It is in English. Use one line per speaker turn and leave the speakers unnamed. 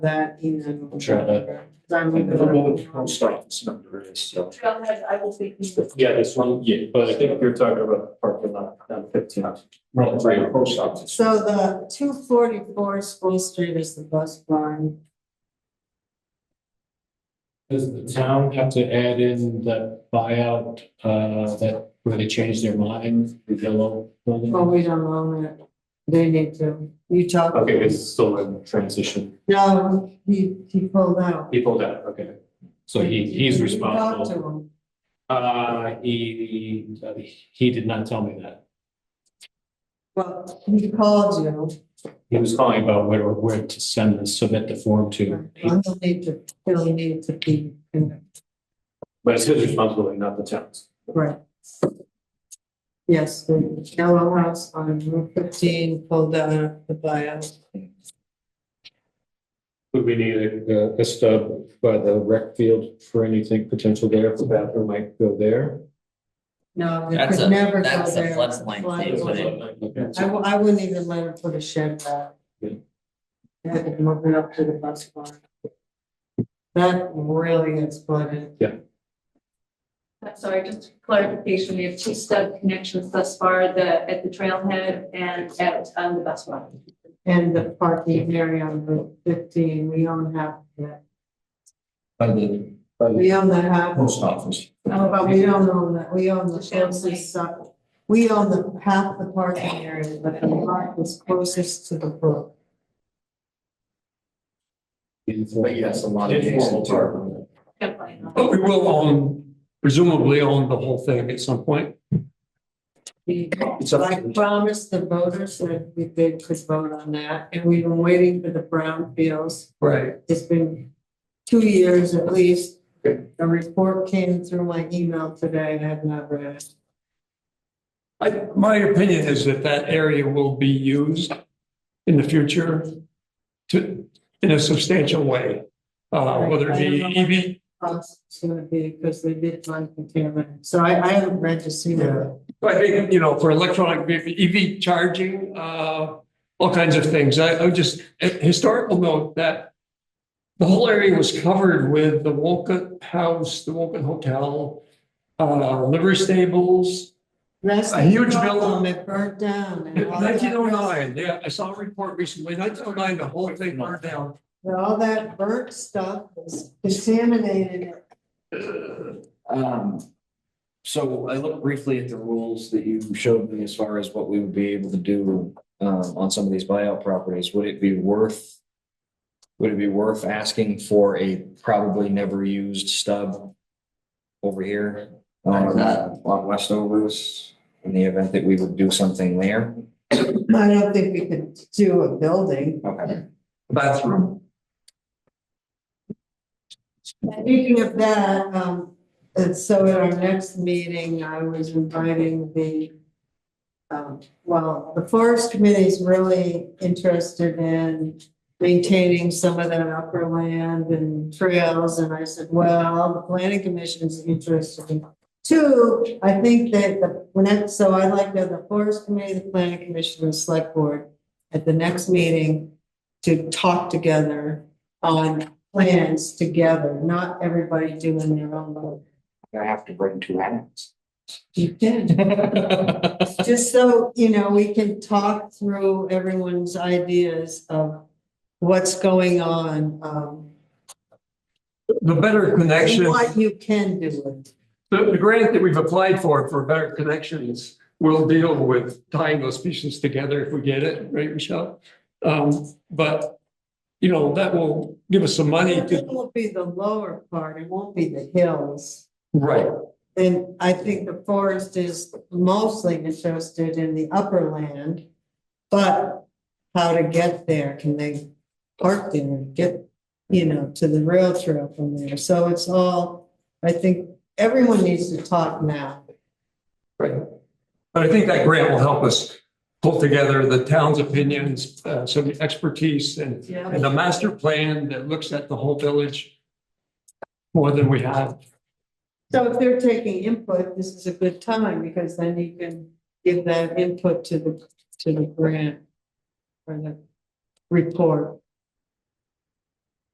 that email.
Sure, that-
Cause I'm
I
looking
don't know what the
at-
pound this number is, uh, so.
Trailhead, I will take you.
Yeah, this one, yeah, but I think you're talking about parking lot down fifteen. Right, right, post office.
So the two forty-four School Street is the bus barn.
Does the town have to add in the buyout, uh, that, where they changed their mind, the yellow building?
Well, we don't own it. They need to. You talked.
Okay, it's still in transition.
No, he, he pulled out.
People that, okay.
So he, he's
You Talked
responsible.
to him.
Uh, he,
uh,
he did not tell me that.
Well, he called you.
He was calling about where, where to send this, submit the form to.
He'll need to, he'll need to be, in-
But it's his responsibility, not the town's.
right. Yes, the yellow house on Route fifteen pulled out the buyout.
Would we need a, a stub by the rec field for anything potential there, if the bathroom might go there?
No, we
That's
could
a-
never go there.
that's a floodplain thing, isn't it?
I w- I wouldn't even let him put a shed back.
Yeah.
Had to move it up to the bus barn. That really gets flooded.
I'm sorry, just clarification, we have two stub connections thus far, the, at the trailhead and at, um, the bus stop.
And the parking area on Route fifteen, we own half of that.
By the, by the
We own that half.
post office.
Oh, but we don't own that, we own the
The shed site.
closest, side. we own the half the parking area, but the lot is closest to the brook.
But yes, a lot of.
Informal park.
But we will own, presumably own the whole thing at some point.
It's up to
I
the-
promised the voters that we did could vote on that, and we've been waiting for the brownfields.
Right.
It's been two years at least.
Okay.
A report came through my email today and I have not read it.
I, my opinion is that that area will be used in the future to, in a substantial way. Uh, whether it be
Plus, It's gonna be because they did find contaminant, so I, I haven't read to see that.
EV, I think, you know, for electronic vehicle, EV charging, uh, all kinds of things. I, I would just, a historical note that the whole area was covered with the Woken House, the Woken Hotel, uh, livery stables,
That's
A
the
huge
problem,
building.
It burnt down. and all that-
Nineteen oh nine, yeah, I saw a report recently, nineteen oh nine, the whole thing burned down.
and All that burnt stuff was contaminated.
Um, so I looked briefly at the rules that you showed me as far as what we would be able to do um on some of these buyout properties. Would it be worth? Would it be worth asking for a probably never used stub over here on uh, on Westovers in the event that we would do something there?
I don't think we could do a building.
Okay.
Bathroom.
Speaking of that, um, and so at our next meeting, I was inviting the. Um, well, the forest committee is really interested in maintaining some of that upper land and trails. And I said, well, the planning commission is interested in. Two, I think that the, when it- so I'd like to have the forest committee, the planning commission, and select board at the next meeting to talk together on plans together, not everybody doing their own little.
I have to bring two hats.
You Just so, you know, we can talk through everyone's ideas of what's going on, um,
The better
and
connection,
what you can do with. it.
the, the grant that we've applied for, for better connections, will deal with tying those pieces together if we get it, right, Michelle? Um, but, you know, that will give us some money
It
to,
will be the lower part, it won't be the hills.
right,
And I think the forest is mostly interested in the upper land. But how to get there, can they park there and get, you know, to the rail trail from there? So it's all, I think everyone needs to talk now.
right. But I think that grant will help us pull together the town's opinions, uh, some expertise and
Yeah.
And a master plan that looks at the whole village more than we have.
So if they're taking input, this is a good time because then you can give that input to the, to the grant. Or the report.